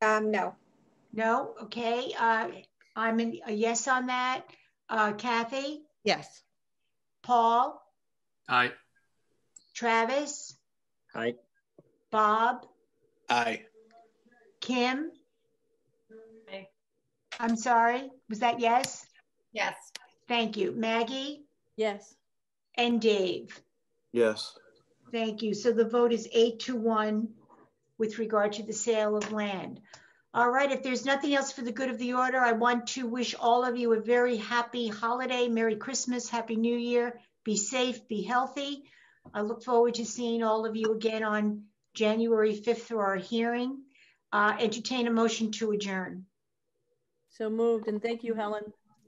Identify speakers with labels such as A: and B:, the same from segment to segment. A: Um, no.
B: No? Okay. Uh, I'm in, a yes on that. Uh, Kathy,
C: Yes.
B: Paul,
D: Aye.
B: Travis,
E: Aye.
B: Bob,
E: Aye.
B: Kim?
F: Aye.
B: I'm sorry, was that yes?
F: Yes.
B: Thank you. Maggie
C: Yes.
B: and Dave?
E: Yes.
B: Thank you. So the vote is eight to one with regard to the sale of land. All right, if there's nothing else for the good of the order, I want to wish all of you a very happy holiday, Merry Christmas, Happy New Year. Be safe, be healthy. I look forward to seeing all of you again on January 5th for our hearing. Uh, entertain a motion to adjourn.
C: So moved. And thank you, Helen.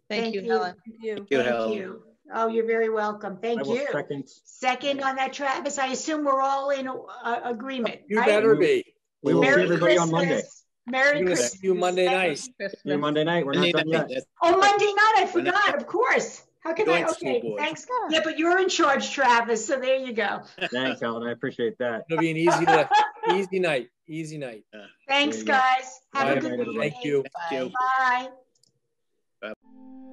B: Thank
C: Thank you,
B: you.
C: Helen. Thank you.
E: Good
B: Thank
E: health.
B: you. Oh, you're very welcome.
E: I
B: Thank
E: will
B: you.
E: second.
B: Second on that, Travis, I assume we're all in uh, agreement.
G: You
B: right?
G: better be.
E: We will see
B: Merry
E: everybody on Monday.
B: Christmas. Merry
G: I'm gonna
B: Christmas.
G: see you Monday night.
E: See you Monday night. We're not done yet.
B: Oh, Monday night, I
E: We're not-
B: forgot, of course. How can I,
E: Joint School
B: okay,
E: Board.
B: thanks. Yeah, but you're in charge, Travis, so there you go.
E: Thanks, Helen. I appreciate that.
G: It'll be an easy, night. easy night. Easy night.
B: Thanks,
E: There you go.
B: guys. Have
E: Bye,
B: a good
E: everybody.
B: week.
G: Thank you.
E: Thank you.
B: Bye.